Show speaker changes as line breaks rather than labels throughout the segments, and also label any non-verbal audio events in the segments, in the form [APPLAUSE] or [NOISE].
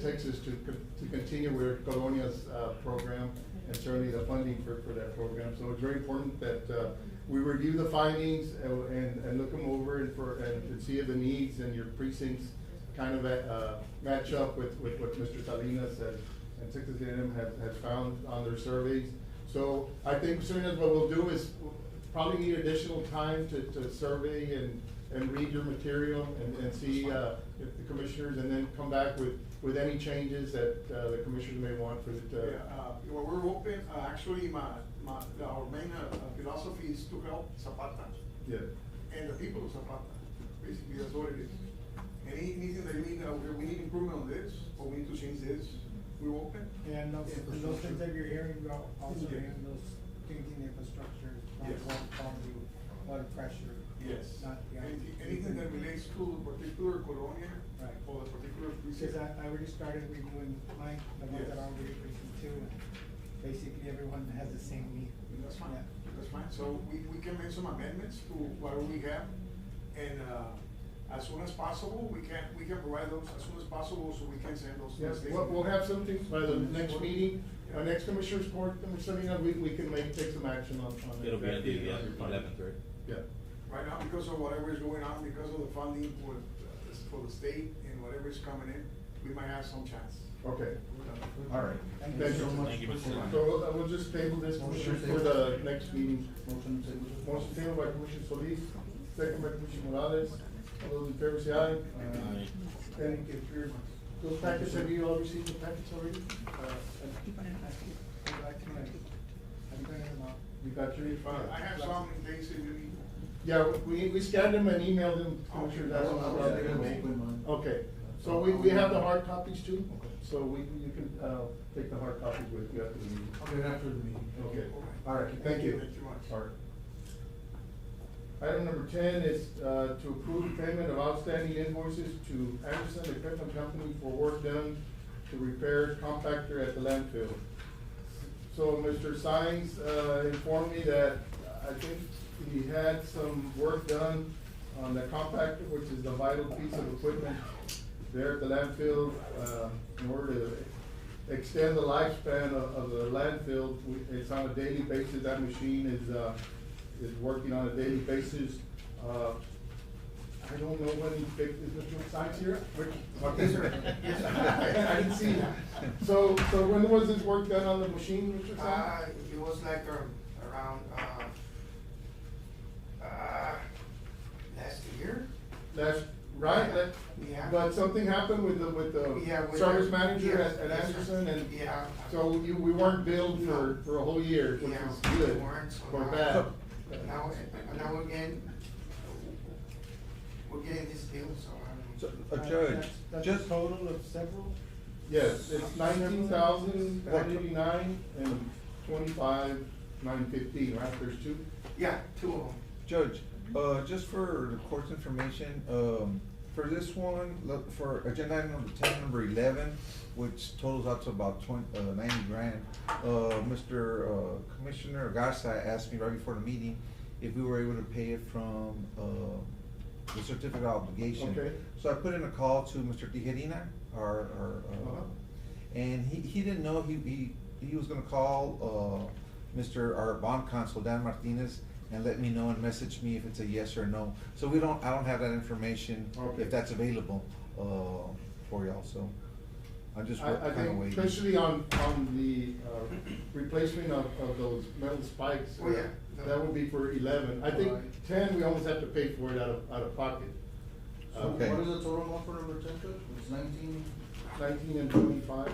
six is to, con- to continue with Colonia's, uh, program and certainly the funding for, for that program. So it's very important that, uh, we review the findings and, and, and look them over and for, and to see if the needs and your precincts kind of, uh, match up with, with what Mr. Salinas and, and Texas A and M have, have found on their surveys. So I think soon as what we'll do is probably need additional time to, to survey and, and read your material and, and see, uh, if the commissioners, and then come back with, with any changes that, uh, the commissioners may want for
Yeah,
the, uh,
uh, well, we're open, uh, actually, my, my, our main uh, philosophy is to help Zapata
yeah.
and the people of Zapata. Basically, that's what it is. Any, anything that we need, uh, we- we need improvement on this, or we need to change this, we're open.
And those, and those things that you're hearing about, also
Yeah.
in those changing infrastructure,
Yes.
from water quality, water pressure.
Yes.
Not, yeah.
Anything, anything that relates to the particular colonia
Right.
or the particular precinct.
Because I, I already started reviewing mine, the ones
Yes.
that are already precinct two, and basically everyone has the same need.
That's fine,
Yeah.
that's fine. So we, we can make some amendments to what we have. And, uh, as soon as possible, we can, we can provide those as soon as possible so we can send those. to the
Yes,
state.
we'll, we'll have something by the next meeting, our
Yeah.
next commissioners court, Commissioner Salinas, we, we can make, take some action on, on.
It'll be on the uh,
Yeah.
eleventh, right?
Yeah,
Right now, because of whatever is going on, because of the funding for, uh, for the state and whatever is coming in, we might have some chance.
okay, all right.
Thank you so much
Thank you, Mr. Salinas.
So uh, we'll just table this
Motion
for the
table.
next meeting.
Motion table.
Motion tabled by Commissioner Solis, second by Commissioner Morales, all those in favor say aye. Thank you very much. Those packets, have you all received the packets already? Uh, and
I'd like to, I'm bringing them up.
You got your file?
I have some things that you need.
Yeah, we, we scanned them and emailed them, to Commissioner, that's
Okay.
what I was gonna make. Okay, so we, we have the hard copies too, so we, you can, uh, take the hard copies with you after the meeting.
Okay, after the meeting.
Okay, all right, thank you.
Thank you much.
All right. Item number ten is, uh, to approve payment of outstanding invoices to Anderson Equipment Company for work done to repair compactor at the landfill. So Mr. Sines, uh, informed me that I think he had some work done on the compactor, which is the vital piece of equipment there at the landfill, uh, in order to extend the lifespan of, of the landfill. We- It's on a daily basis, that machine is, uh, is working on a daily basis. Uh, I don't know when he fixed, is Mr. Sines here? Which-
Yes, sir.
Yes, sir. [LAUGHS] I didn't see that. So, so when was this work done on the machine, Mr. Sines?
Uh, it was like, um, around, uh, uh, last year?
That's right, that,
Yeah.
but something happened with the, with
Yeah, with
the
the-
service manager
yes,
at, at
yes, sir.
Anderson and.
Yeah.
So you, we weren't billed for,
No.
for a whole year, which
Yeah,
is
we
good,
weren't, so
or
now-
bad.
Now, now again, we're getting this deal, so um, I
So,
don't.
uh,
Uh,
Judge,
that's- that's a
just,
Total of several?
Yes, it's nineteen thousand, one eighty-nine and twenty-five, nine fifteen, right, there's two?
Yeah, two of them.
Judge, uh, just for the court's information, um, for this one, look, for agenda item number ten, number eleven, which totals out to about twenty, uh, ninety grand, uh, Mr. uh, Commissioner Garza asked me right before the meeting if we were able to pay it from, uh, the certificate of obligation.
Okay.
So I put in a call to Mr. Tijerina, our, our,
Uh-huh.
uh, and he, he didn't know, he, he, he was gonna call, uh, Mr., our bond counsel, Dan Martinez, and let me know and message me if it's a yes or no. So we don't, I don't have that information,
Okay.
if that's available, uh, for y'all, so I'm just
I, I
kinda
think
waiting.
especially on, on the, uh, replacement of, of those metal spikes. uh,
Oh, yeah.
That would be for eleven, I think
Alright.
ten, we almost have to pay for it out of, out of pocket. uh,
So Okay. what is the
total amount for number ten, Judge? It's nineteen?
Nineteen and twenty-five.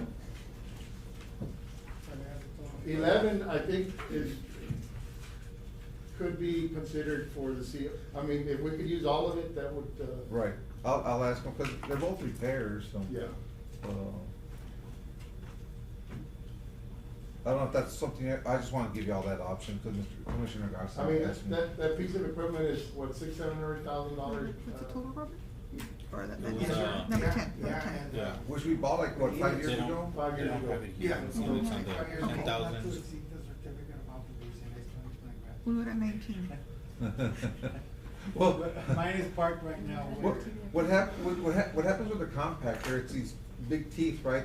So they have a total of-
Eleven, I think, is, could be considered for the CO, I mean, if we could use all of it, that would, uh.
Right, I'll, I'll ask them, cause they're both repairs, so.
Yeah,
Uh, I don't know if that's something, I I just wanna give y'all that option, cause Mr. Commissioner Garcia.
I mean,
asked me.
that, that piece of equipment is, what, six, seven hundred thousand dollars? uh,
What's the total, Robert? Or that,
It was,
yeah,
uh,
number ten, number
Yeah,
ten.
and, uh,
Yeah.
Which we bought like, what, five years
They don't-
ago?
Five years
they don't
ago.
have it here.
Yeah.
It's on the
Okay.
Not to
ten thousand.
exceed the certificate of obligation, it's twenty-five grand.
We were at nineteen.
[LAUGHS] Well,
Mine is parked right now.
what, what hap, what, what hap, what happens with the compactor, it's these big teeth, right?